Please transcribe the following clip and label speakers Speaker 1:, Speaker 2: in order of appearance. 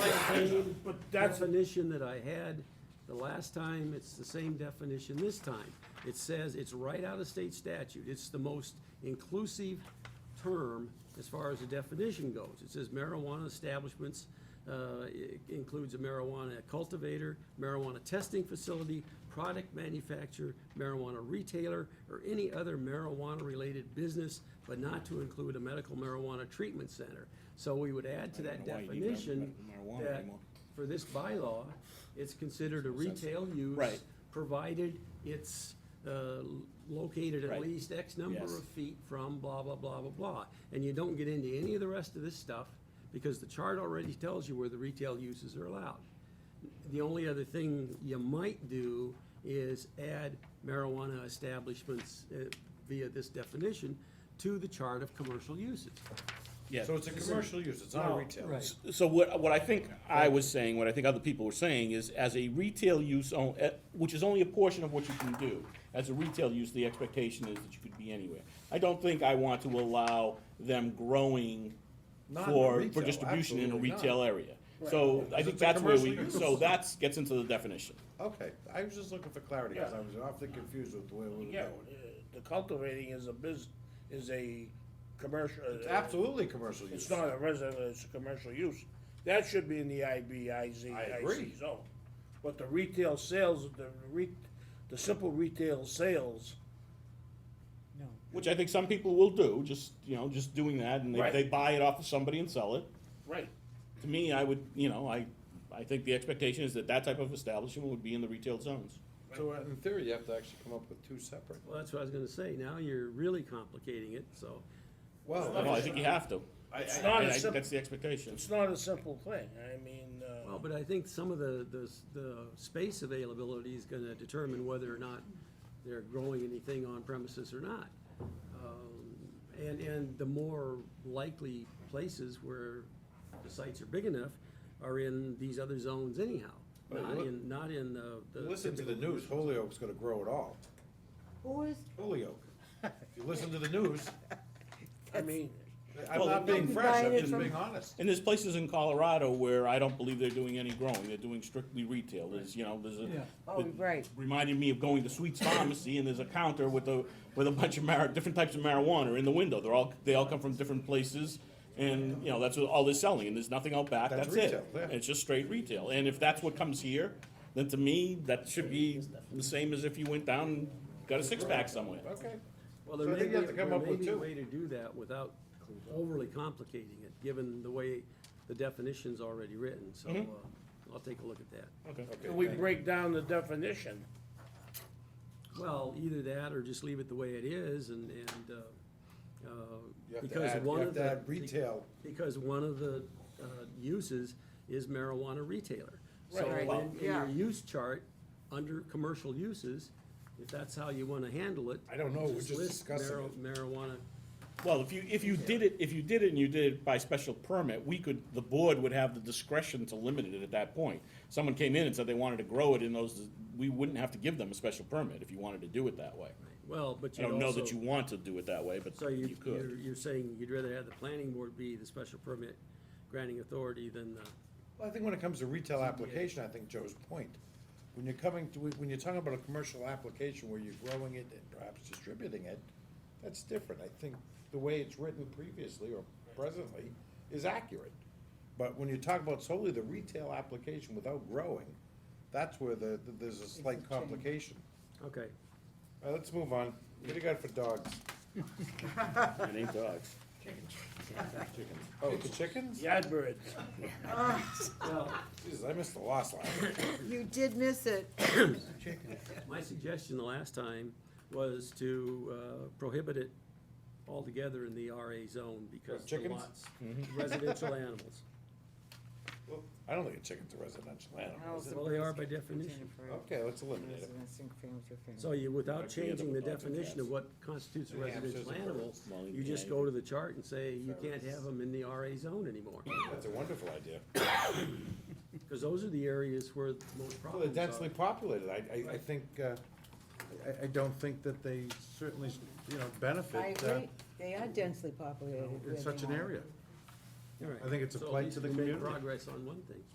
Speaker 1: same
Speaker 2: But that's,
Speaker 1: definition that I had the last time, it's the same definition this time. It says, it's right out of state statute, it's the most inclusive term as far as the definition goes. It says marijuana establishments, uh, i- includes a marijuana cultivator, marijuana testing facility, product manufacturer, marijuana retailer, or any other marijuana-related business, but not to include a medical marijuana treatment center. So we would add to
Speaker 2: I
Speaker 1: that
Speaker 2: don't know why you need to have
Speaker 1: definition
Speaker 2: medical marijuana
Speaker 1: that
Speaker 2: anymore.
Speaker 1: for this bylaw, it's considered a retail use.
Speaker 2: Right.
Speaker 1: Provided it's, uh, located at
Speaker 2: Right.
Speaker 1: least X number
Speaker 2: Yes.
Speaker 1: of feet from blah, blah, blah, blah, blah. And you don't get into any of the rest of this stuff, because the chart already tells you where the retail uses are allowed. The only other thing you might do is add marijuana establishments uh, via this definition to the chart of commercial uses.
Speaker 2: yeah.
Speaker 3: So it's a commercial use, it's not a
Speaker 1: Well,
Speaker 3: retail.
Speaker 1: right.
Speaker 2: So what, what I think I was saying, what I think other people were saying is as a retail use, on- eh, which is only a portion of what you can do. As a retail use, the expectation is that you could be anywhere. I don't think I want to allow them growing
Speaker 3: Not in a
Speaker 2: for, for
Speaker 3: retail,
Speaker 2: distribution in a
Speaker 3: absolutely not.
Speaker 2: retail area. So I
Speaker 3: Because
Speaker 2: think
Speaker 3: it's a
Speaker 2: that's where we,
Speaker 3: commercial use.
Speaker 2: so that's, gets into the definition.
Speaker 3: Okay, I was just looking for clarity, because I was often confused with the way we were
Speaker 4: Yeah,
Speaker 3: going.
Speaker 4: uh, the cultivating is a biz, is a commercial. uh,
Speaker 3: It's absolutely commercial use.
Speaker 4: It's not a resident, it's a commercial use. That should be in the IBIZ,
Speaker 3: I agree.
Speaker 4: IC zone. But the retail sales, the re, the simple retail sales,
Speaker 2: Which I think some people will do, just, you know, just doing that and they,
Speaker 4: Right.
Speaker 2: they buy it off of somebody and sell it.
Speaker 4: right,
Speaker 2: To me, I would, you know, I, I think the expectation is that that type of establishment would be in the retail zones.
Speaker 3: So uh, in theory, you have to actually come up with two separate.
Speaker 1: Well, that's what I was gonna say, now you're really complicating it, so.
Speaker 3: Well,
Speaker 2: No, I think you have to.
Speaker 3: I-
Speaker 4: It's
Speaker 3: I-
Speaker 4: not
Speaker 2: I-
Speaker 4: a
Speaker 2: I think
Speaker 4: simple,
Speaker 2: that's the expectation.
Speaker 4: it's not a simple thing, I mean,
Speaker 1: Well,
Speaker 4: uh,
Speaker 1: but I think some of the, the, s- the space availability is gonna determine whether or not they're growing anything on premises or not. Um, And, and the more likely places where the sites are big enough are in these other zones anyhow.
Speaker 3: Well,
Speaker 1: Not
Speaker 3: look-
Speaker 1: in, not in the. the
Speaker 3: Listen to the
Speaker 1: typical-
Speaker 3: news, Holyoke's gonna grow it all.
Speaker 5: Who is,
Speaker 3: Holyoke. If you listen to the news,
Speaker 4: I mean,
Speaker 3: I'm
Speaker 2: Well,
Speaker 3: not being
Speaker 5: Don't
Speaker 3: fresh, I'm
Speaker 5: divide it
Speaker 3: just
Speaker 5: from-
Speaker 3: being honest.
Speaker 2: And there's places in Colorado where I don't believe they're doing any growing, they're doing strictly retail, there's, you know, there's a.
Speaker 5: oh, right.
Speaker 2: Reminded me of going to Sweet's Pharmacy and there's a counter with a, with a bunch of mar, different types of marijuana in the window, they're all, they all come from different places. And, you know, that's what all they're selling, and there's nothing out back,
Speaker 3: That's
Speaker 2: that's it,
Speaker 3: retail, yeah.
Speaker 2: it's just straight retail, and if that's what comes here, then to me, that should be the same as if you went down and got a six-pack somewhere.
Speaker 3: Okay.
Speaker 1: Well, there
Speaker 3: So I
Speaker 1: may
Speaker 3: think
Speaker 1: be,
Speaker 3: you have to come
Speaker 1: there
Speaker 3: up
Speaker 1: may
Speaker 3: with
Speaker 1: be a
Speaker 3: two.
Speaker 1: way to do that without overly complicating it, given the way the definition's already written, so,
Speaker 3: Mm-hmm.
Speaker 1: uh, I'll take a look at that.
Speaker 2: Okay.
Speaker 4: can we break down the definition?
Speaker 1: Well, either that or just leave it the way it is and, and, uh, uh,
Speaker 3: You have to
Speaker 1: because
Speaker 3: add, you
Speaker 1: one
Speaker 3: have
Speaker 1: of
Speaker 3: to
Speaker 1: the.
Speaker 3: add retail.
Speaker 1: Because one of the, uh, uses is marijuana retailer. So
Speaker 5: Right. Right.
Speaker 1: in, in your
Speaker 5: Yeah.
Speaker 1: use chart, under commercial uses, if that's how you wanna handle it.
Speaker 3: I don't know, we're just
Speaker 1: list
Speaker 3: discussing
Speaker 1: mar-
Speaker 3: it.
Speaker 1: Marijuana,
Speaker 2: Well, if you, if you did it, if you did it and you did it by special permit, we could, the board would have the discretion to limit it at that point. Someone came in and said they wanted to grow it in those, we wouldn't have to give them a special permit if you wanted to do it that way.
Speaker 1: well, but
Speaker 2: I
Speaker 1: you also.
Speaker 2: don't know that you want to do it that way, but
Speaker 1: So
Speaker 2: you
Speaker 1: you,
Speaker 2: could.
Speaker 1: you're, you're saying you'd rather have the planning board be the special permit granting authority than the.
Speaker 3: Well, I think when it comes to retail application, I think Joe's point, when you're coming to, when you're talking about a commercial application where you're growing it and perhaps distributing it, that's different. I think the way it's written previously or presently is accurate. But when you talk about solely the retail application without growing, that's where the, the- there's a slight complication.
Speaker 1: Okay,
Speaker 3: All right, let's move on. What do you got for dogs?
Speaker 2: It ain't dogs.
Speaker 3: Oh, it's chickens?
Speaker 4: Yard birds,
Speaker 3: Jesus, I missed the last line.
Speaker 5: You did miss it.
Speaker 1: my suggestion the last time was to uh, prohibit it altogether in the RA zone because the
Speaker 3: chickens?
Speaker 1: lots,
Speaker 2: Mm-hmm.
Speaker 1: residential animals.
Speaker 3: Well, I don't think a chicken's a residential animal. is it?
Speaker 1: Well, they are by definition.
Speaker 3: Okay, let's eliminate it.
Speaker 1: So you, without
Speaker 2: Actually, yeah,
Speaker 1: changing the
Speaker 2: the dogs and
Speaker 1: definition of
Speaker 2: cats.
Speaker 1: what constitutes a
Speaker 3: Yeah, hamsters
Speaker 1: residential
Speaker 3: and
Speaker 1: animal,
Speaker 3: birds.
Speaker 2: Well,
Speaker 1: you just
Speaker 2: yeah.
Speaker 1: go to the chart and say you can't have them in the RA zone anymore.
Speaker 3: That's a wonderful idea.
Speaker 1: Because those are the areas where the most
Speaker 3: Well, they're
Speaker 1: problems are.
Speaker 3: densely populated, I, I, I think, uh, I, I don't think that they certainly, you know,
Speaker 5: I
Speaker 3: benefit, uh,
Speaker 5: agree, they are densely populated.
Speaker 3: in such an
Speaker 5: Vietnam.
Speaker 3: area.
Speaker 1: All right.
Speaker 3: I think it's a
Speaker 1: So at
Speaker 3: plight
Speaker 1: least
Speaker 3: to the
Speaker 1: we made
Speaker 3: community.
Speaker 1: Progress on one thing.